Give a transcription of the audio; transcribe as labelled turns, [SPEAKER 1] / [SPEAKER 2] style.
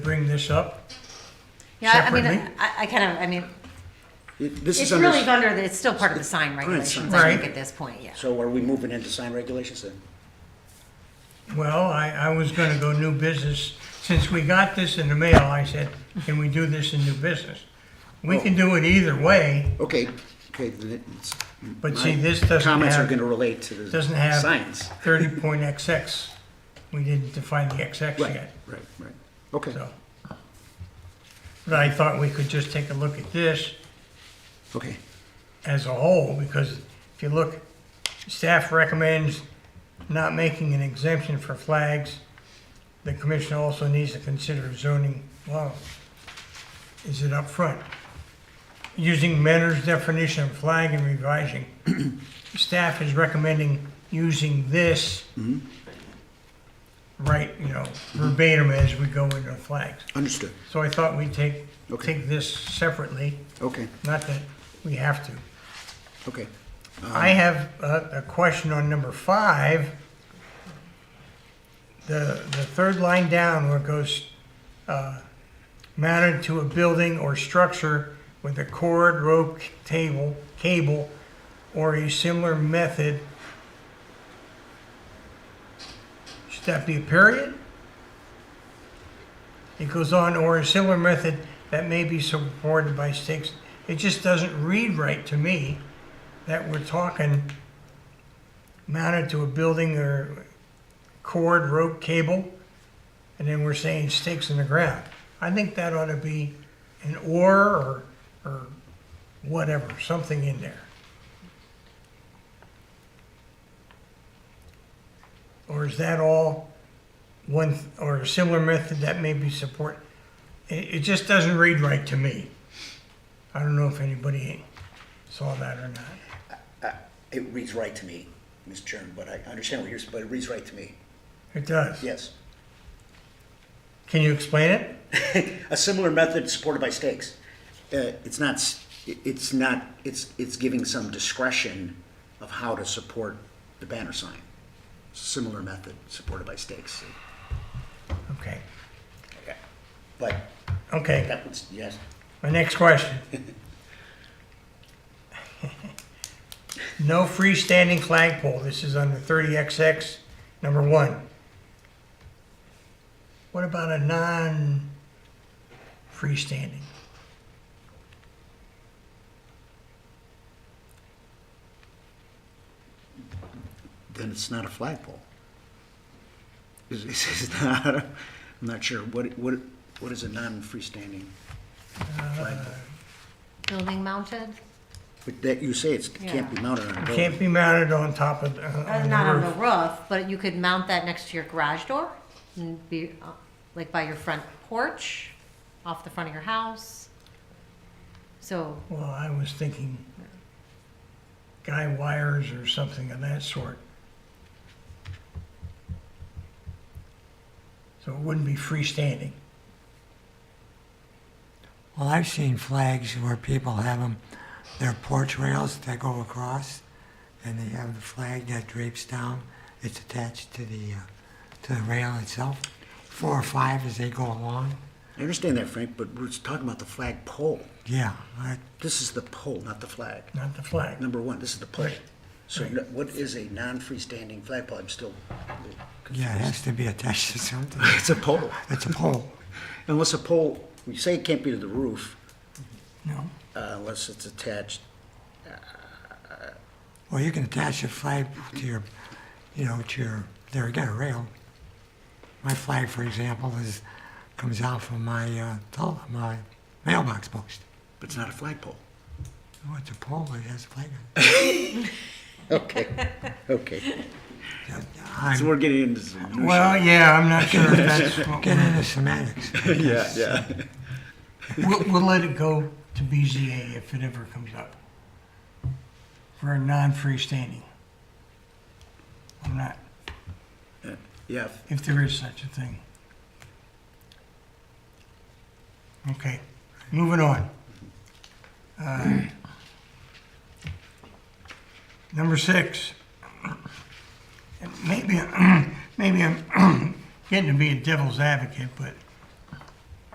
[SPEAKER 1] bring this up?
[SPEAKER 2] Yeah, I mean,
[SPEAKER 1] Separately?
[SPEAKER 2] I, I kind of, I mean,
[SPEAKER 3] It- This
[SPEAKER 2] it's
[SPEAKER 3] is under,
[SPEAKER 2] really under, the- it's still part of the sign
[SPEAKER 3] Right,
[SPEAKER 2] regulations,
[SPEAKER 1] sign.
[SPEAKER 2] I think,
[SPEAKER 1] Right.
[SPEAKER 2] at this point, yeah.
[SPEAKER 3] so are we moving into sign regulations then?
[SPEAKER 1] Well, I, I was gonna go new business. Since we got this in the mail, I said, can we do this in new business? We can do it either way,
[SPEAKER 3] Okay, okay. then it's-
[SPEAKER 1] But see,
[SPEAKER 3] my
[SPEAKER 1] this doesn't
[SPEAKER 3] Comments are
[SPEAKER 1] have-
[SPEAKER 3] gonna relate to the
[SPEAKER 1] doesn't have-
[SPEAKER 3] signs.
[SPEAKER 1] thirty point XX. We didn't define the XX
[SPEAKER 3] Right,
[SPEAKER 1] yet,
[SPEAKER 3] right, right. Okay,
[SPEAKER 1] so. But I thought we could just take a look at this
[SPEAKER 3] okay.
[SPEAKER 1] as a whole, because if you look, staff recommends not making an exemption for flags. The commission also needs to consider zoning law. Is it up front? Using Mentor's definition of flag and revising. Staff is recommending using this right, you know, verbatim as we go into flags.
[SPEAKER 3] Understood,
[SPEAKER 1] So I thought we'd take,
[SPEAKER 3] Okay.
[SPEAKER 1] take this separately,
[SPEAKER 3] okay,
[SPEAKER 1] not that we have to.
[SPEAKER 3] okay.
[SPEAKER 1] I have a, a question on number five. The, the third line down where it goes, uh, mounted to a building or structure with a cord, rope, table, cable, or a similar method. Should that be a period? It goes on, or a similar method that may be supported by stakes. It just doesn't read right to me that we're talking mounted to a building or cord, rope, cable, and then we're saying stakes in the ground. I think that ought to be an or or, or whatever, something in there. Or is that all one, th- or a similar method that may be support? It, it just doesn't read right to me. I don't know if anybody saw that or not.
[SPEAKER 3] It reads right to me, Mr. Chairman, but I understand what you're, s- but it reads right to me,
[SPEAKER 1] It does.
[SPEAKER 3] yes.
[SPEAKER 1] Can you explain it?
[SPEAKER 3] A similar method supported by stakes. Uh, It's not, s- it- it's not, it's, it's giving some discretion of how to support the banner sign. Similar method supported by stakes.
[SPEAKER 1] Okay.
[SPEAKER 3] But
[SPEAKER 1] Okay,
[SPEAKER 3] that was, yes.
[SPEAKER 1] my next question. No freestanding flagpole, this is under thirty XX, number one. What about a non-freestanding?
[SPEAKER 3] then it's not a flagpole. It's, it's- it's not, I'm not sure, what, what, what is a non-freestanding flagpole?
[SPEAKER 2] Building mounted?
[SPEAKER 3] But that, you say it's, it can't be mounted on a
[SPEAKER 1] It Can't
[SPEAKER 3] building.
[SPEAKER 1] be mounted on top of, uh, on
[SPEAKER 2] Not on
[SPEAKER 1] the
[SPEAKER 2] the
[SPEAKER 1] roof.
[SPEAKER 2] roof, but you could mount that next to your garage door and be, uh, like by your front porch, off the front of your house. So,
[SPEAKER 1] Well, I was thinking guy wires or something of that sort. So it wouldn't be freestanding.
[SPEAKER 4] Well, I've seen flags where people have them, they're porch rails that go across, and they have the flag that drapes down. It's attached to the, uh, to the rail itself, four or five as they go along.
[SPEAKER 3] I understand that, Frank, but we're talking about the flagpole.
[SPEAKER 4] Yeah, I,
[SPEAKER 3] This is the pole, not the flag.
[SPEAKER 1] Not the flag.
[SPEAKER 3] Number one, this is the pole. So
[SPEAKER 1] Right.
[SPEAKER 3] no- what is a non-freestanding flagpole? I'm still
[SPEAKER 4] yeah, it
[SPEAKER 3] confused.
[SPEAKER 4] has to be attached to something.
[SPEAKER 3] It's a pole.
[SPEAKER 4] It's a pole.
[SPEAKER 3] Unless a pole, we say it can't be to the roof
[SPEAKER 4] No.
[SPEAKER 3] uh, unless it's attached
[SPEAKER 4] Well, you can attach a flag to your, you know, to your, there again, a rail. My flag, for example, is, comes out from my, uh, tele- my mailbox post.
[SPEAKER 3] But it's not a flagpole.
[SPEAKER 4] Oh, it's a pole, it has a flag on
[SPEAKER 3] Okay, okay.
[SPEAKER 4] it.
[SPEAKER 3] So
[SPEAKER 4] I'm
[SPEAKER 3] we're getting into some new
[SPEAKER 1] Well, yeah, I'm not sure if that's what
[SPEAKER 4] getting into semantics.
[SPEAKER 3] shit. Yeah, yeah.
[SPEAKER 1] We'll, we'll let it go to BZA if it ever comes up. For a non-freestanding. I'm not,
[SPEAKER 3] Yeah,
[SPEAKER 1] if there is such a thing. Okay, moving on. Uh, Number six. And Maybe, maybe I'm getting to be a devil's advocate, but